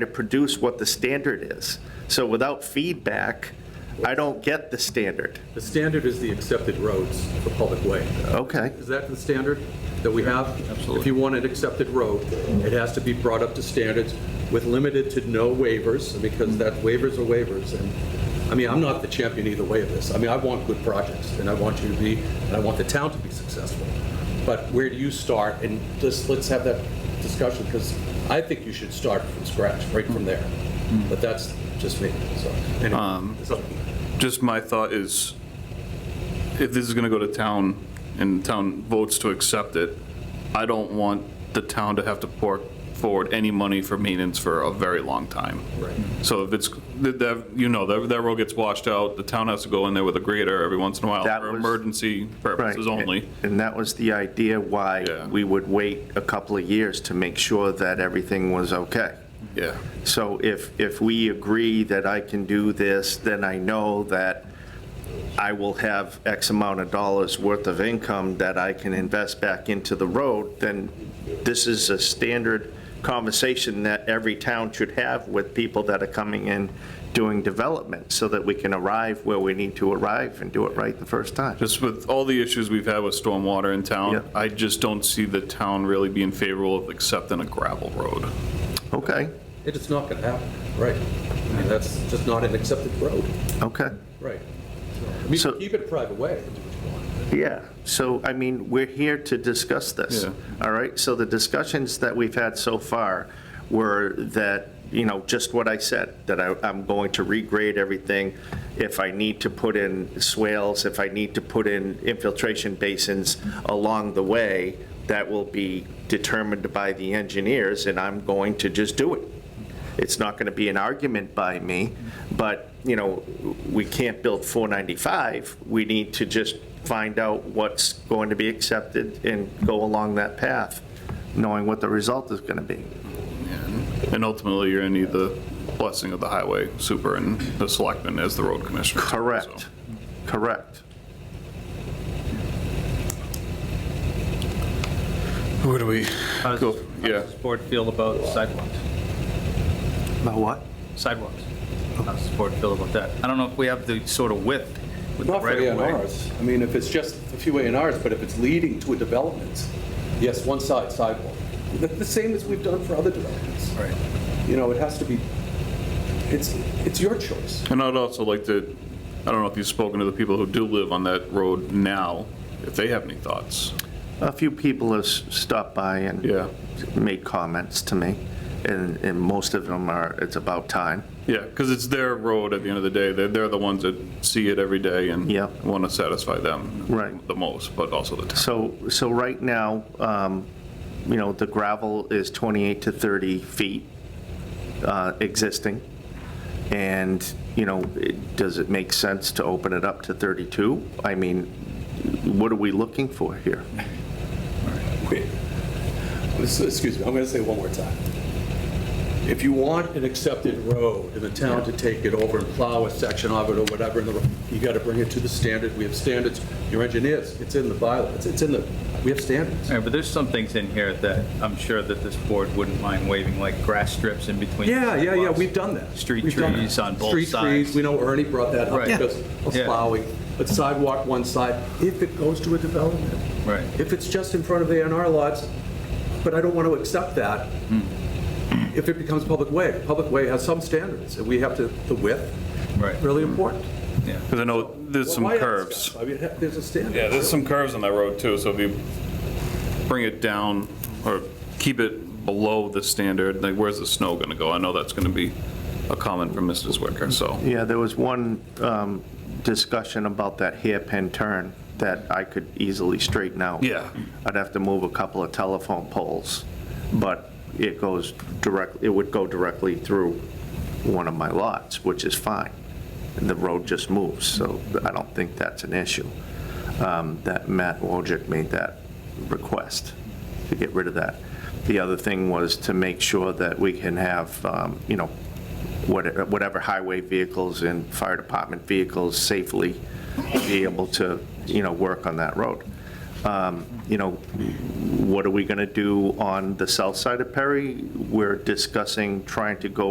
to produce what the standard is. So without feedback, I don't get the standard. The standard is the accepted roads for public way. Okay, Is that the standard that we have? Absolutely. If you want an accepted road, it has to be brought up to standards with limited to no waivers, because that waivers are waivers. And, I mean, I'm not the champion either way of this. I mean, I want good projects, and I want you to be, and I want the town to be successful. But where do you start? And just, let's have that discussion, because I think you should start from scratch, right from there. But that's just me, so. anyway, it's up to you. Just my thought is, if this is going to go to town and town votes to accept it, I don't want the town to have to pour forward any money for maintenance for a very long time. Right. So if it's, that- that, you know, that that road gets washed out, the town has to go in there with a grader every once in a while That for was- emergency right. purposes only. And that was the idea why Yeah. we would wait a couple of years to make sure that everything was okay. Yeah. So if, if we agree that I can do this, then I know that I will have X amount of dollars worth of income that I can invest back into the road, then this is a standard conversation that every town should have with people that are coming in doing development, so that we can arrive where we need to arrive and do it right the first time. Just with all the issues we've had with stormwater in Yeah. town, I just don't see the town really being favorable of accepting a gravel road. Okay, It is not going to happen, right? I mean, that's just not an accepted road, okay. right? I mean, you So- can keep it a private way, and do what you want. Yeah, so, I mean, we're here to discuss this, Yeah. all right? So the discussions that we've had so far were that, you know, just what I said, that I, I'm going to regrade everything. If I need to put in swales, if I need to put in infiltration basins along the way, that will be determined by the engineers, and I'm going to just do it. It's not going to be an argument by me, but, you know, we can't build 495. We need to just find out what's going to be accepted and go along that path, knowing what the result is going to be. And ultimately, you're going to need the blessing of the highway super and the selectman as the road commissioner. Correct, So, correct. Where do we How does, go? how Yeah, does this board feel about sidewalks? About what? Sidewalks? How does this board feel about that? I don't know if we have the sort of width with the Not for right of way. A&Rs. I mean, if it's just a few A&Rs, but if it's leading to a development, yes, one side sidewalk. The- The same as we've done for other developments. Right. You know, it has to be, it's, it's your choice. and I'd also like to, I don't know if you've spoken to the people who do live on that road now, if they have any thoughts. A few people have s- stopped by and Yeah. made comments to me, and, and most of them are, it's about time. Yeah, because it's their road at the end of the day. They're, they're the ones that see it every day and Yeah. want to satisfy them Right. the most, but also the town. So, so right now, um, you know, the gravel is 28 to 30 feet uh, existing, and, you know, it- does it make sense to open it up to 32? I mean, what are we looking for here? Wait. This- Excuse me, I'm going to say it one more time. If you want an accepted road in the town to take it over and plow a section of it or whatever, in the ro- you got to bring it to the standard. We have standards. Your engineers, it's in the bylaw. It's- It's in the, we have standards. All right, but there's some things in here that I'm sure that this board wouldn't mind waiving, like grass strips in between. Yeah, yeah, yeah, sidewalks. we've done that. Street We've done that. trees on both Street trees, sides. we know Ernie brought that up Right. Yeah. because of Yeah. plowing, but sidewalk one side, if it goes to a development. Right. If it's just in front of A and R lots, but I don't want to accept that Hmm. if it becomes public way. Public way has some standards, and we have to, the width, Right. really important. Yeah. Because I know there's some Why ask curves. us? I mean, there's a standard. Yeah, there's some curves on that road too, so if you bring it down or keep it below the standard, like where's the snow gonna go? I know that's gonna be a comment from Mr. Zwicker, so. Yeah, there was one um, discussion about that hairpin turn that I could easily straighten out. Yeah. I'd have to move a couple of telephone poles, but it goes direct, it would go directly through one of my lots, which is fine. The road just moves, so I don't think that's an issue. Um, That Matt Wojcik made that request to get rid of that. The other thing was to make sure that we can have, um, you know, what- whatever highway vehicles and fire department vehicles safely be able to, you know, work on that road. Um, You know, what are we going to do on the south side of Perry? We're discussing trying to go